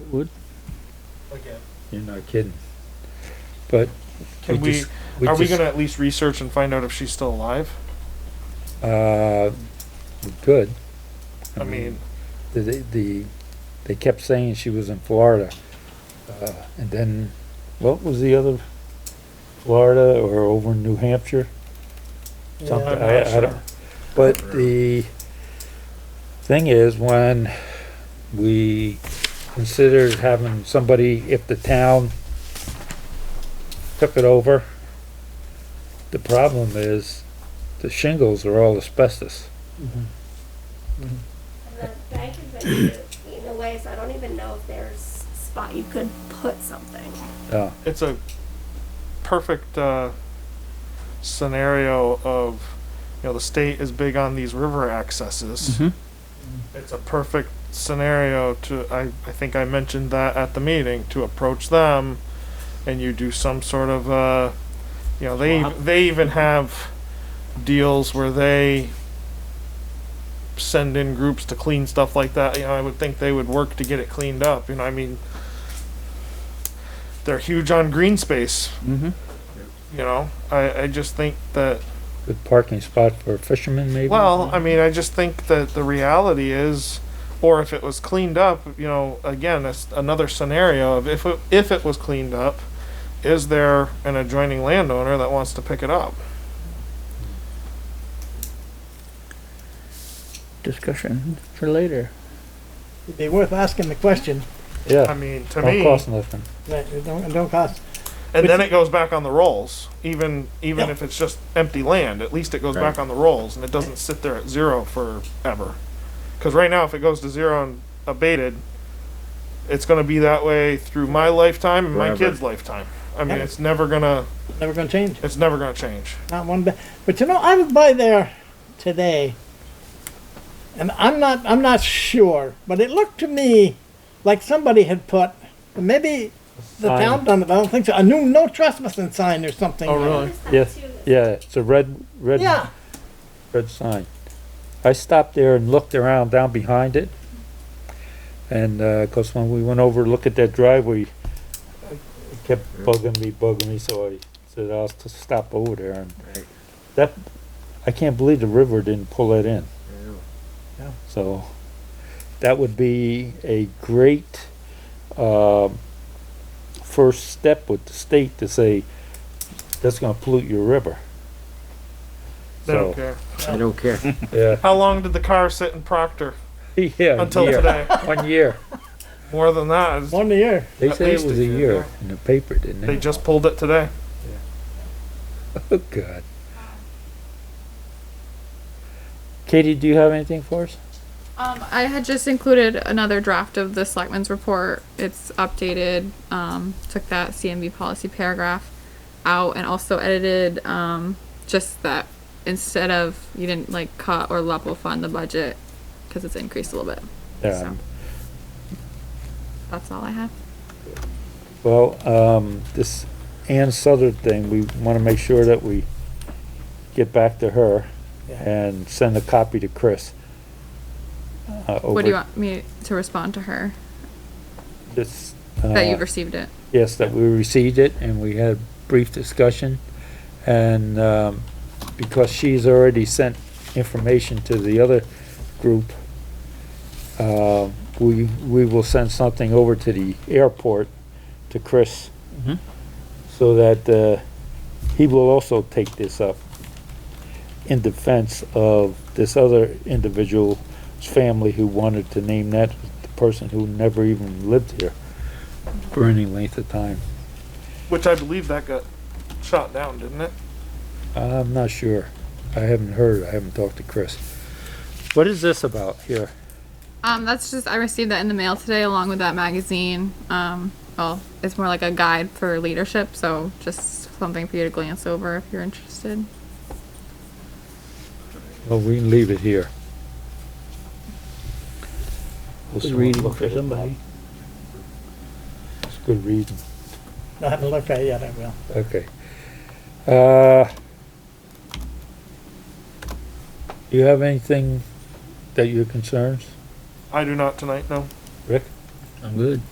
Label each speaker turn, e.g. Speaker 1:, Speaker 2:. Speaker 1: It would.
Speaker 2: again.
Speaker 3: You're not kidding. But.
Speaker 2: Can we,
Speaker 3: just-
Speaker 2: are we
Speaker 3: just-
Speaker 2: gonna at least research and find out if she's still alive?
Speaker 3: Uh, we could.
Speaker 2: I
Speaker 3: Mm-hmm.
Speaker 2: mean,
Speaker 3: The, the- the, they kept saying she was in Florida. Uh, and then, what was the other, Florida or over in New Hampshire? Something, I,
Speaker 2: I'm not
Speaker 3: I don't,
Speaker 2: sure.
Speaker 3: but the thing is, when we considered having somebody, if the town took it over, the problem is the shingles are all asbestos.
Speaker 4: And the bank is basically eaten away, so I don't even know if there's a spot you could put something.
Speaker 3: Uh,
Speaker 2: it's a perfect, uh, scenario of, you know, the state is big on these river accesses.
Speaker 1: Mm-hmm,
Speaker 2: It's a perfect scenario to, I, I think I mentioned that at the meeting, to approach them and you do some sort of, uh, you know, they,
Speaker 1: Swap.
Speaker 2: they even have deals where they send in groups to clean stuff like that. You know, I would think they would work to get it cleaned up. You know, I mean, they're huge on green space.
Speaker 1: Mm-hmm.
Speaker 2: You know, I, I just think that
Speaker 3: good parking spot for fishermen maybe?
Speaker 2: well, I mean, I just think that the reality is, or if it was cleaned up, you know, again, it's another scenario of if it, if it was cleaned up, is there an adjoining landowner that wants to pick it up?
Speaker 1: Discussion for later.
Speaker 5: It'd be worth asking the question,
Speaker 2: I
Speaker 3: Yeah,
Speaker 2: mean, to
Speaker 3: don't
Speaker 2: me,
Speaker 3: cost nothing.
Speaker 5: but it don't, it don't cost.
Speaker 2: and then it goes back on the rolls. Even even
Speaker 5: Yeah.
Speaker 2: if it's just empty land, at least it goes back on the rolls and it doesn't sit there at zero forever. Because right now, if it goes to zero and abated, it's going to be that way through my lifetime and my
Speaker 6: Forever.
Speaker 2: kids' lifetime. I mean,
Speaker 5: Yeah.
Speaker 2: it's never gonna.
Speaker 5: Never gonna change.
Speaker 2: It's never gonna change.
Speaker 5: Not one bit. But you know, I was by there today, and I'm not I'm not sure, but it looked to me like somebody had put maybe the
Speaker 3: Sign.
Speaker 5: town done it. I don't think so. A new no trespassing sign or something.
Speaker 2: Oh,
Speaker 4: I
Speaker 2: really?
Speaker 4: noticed that
Speaker 3: Yes,
Speaker 4: too.
Speaker 3: yeah, it's a red, red.
Speaker 5: Yeah.
Speaker 3: red sign. I stopped there and looked around down behind it. And, uh 'cause cause when we went over to look at that driveway, it kept bugging me, bugging me, so I said, I'll s- stop over there and
Speaker 6: Right.
Speaker 3: that, I can't believe the river didn't pull that in.
Speaker 5: Yeah.
Speaker 3: So, that would be a great, um, first step with the state to say, that's gonna pollute your river.
Speaker 2: They
Speaker 3: So,
Speaker 2: don't care.
Speaker 6: I don't care.
Speaker 3: Yeah.
Speaker 2: How long did the car sit in Proctor
Speaker 3: Yeah.
Speaker 2: until
Speaker 3: yeah.
Speaker 2: today?
Speaker 3: One year.
Speaker 2: More than that, it's-
Speaker 5: One year.
Speaker 3: They
Speaker 2: At
Speaker 3: said it
Speaker 2: least
Speaker 3: was
Speaker 2: a
Speaker 3: a
Speaker 2: year,
Speaker 3: year in the paper, didn't
Speaker 2: they
Speaker 3: they?
Speaker 2: just pulled it today.
Speaker 3: Oh, God. Katie, do you have anything for us?
Speaker 7: Um, I had just included another draft of the selectmen's report. It's updated. Um, took that CMB policy paragraph out and also edited um, just that instead of you didn't like cut or level fund the budget because it's increased a little bit.
Speaker 3: Yeah.
Speaker 7: That's all I have.
Speaker 3: Well, um, this Ann Southard thing, we wanna make sure that we get back to her
Speaker 5: Yeah.
Speaker 3: and send a copy to Chris. Uh,
Speaker 7: What do
Speaker 3: over
Speaker 7: you want me to respond to her?
Speaker 3: This.
Speaker 7: that
Speaker 3: uh,
Speaker 7: you've received it.
Speaker 3: Yes, that we received it and we had a brief discussion. And, um, because she's already sent information to the other group, uh, we, we will send something over to the airport, to Chris,
Speaker 1: Mhm.
Speaker 3: so that, uh, he will also take this up in defense of this other individual's family who wanted to name that person who never even lived here for any length of time.
Speaker 2: Which I believe that got shot down, didn't it?
Speaker 3: I'm not sure. I haven't heard. I haven't talked to Chris. What is this about here?
Speaker 7: Um, that's just I received that in the mail today along with that magazine. Um, well, it's more like a guide for leadership, so just something for you to glance over if you're interested.
Speaker 3: Well, we can leave it here. We'll
Speaker 1: Good
Speaker 3: soon
Speaker 1: reading
Speaker 3: look
Speaker 1: for
Speaker 3: at it.
Speaker 1: somebody.
Speaker 3: It's good reading.
Speaker 5: I haven't looked at it yet. I will.
Speaker 3: Okay. Uh, you have anything that your concerns?
Speaker 2: I do not tonight, no.
Speaker 3: Rick?
Speaker 1: I'm good.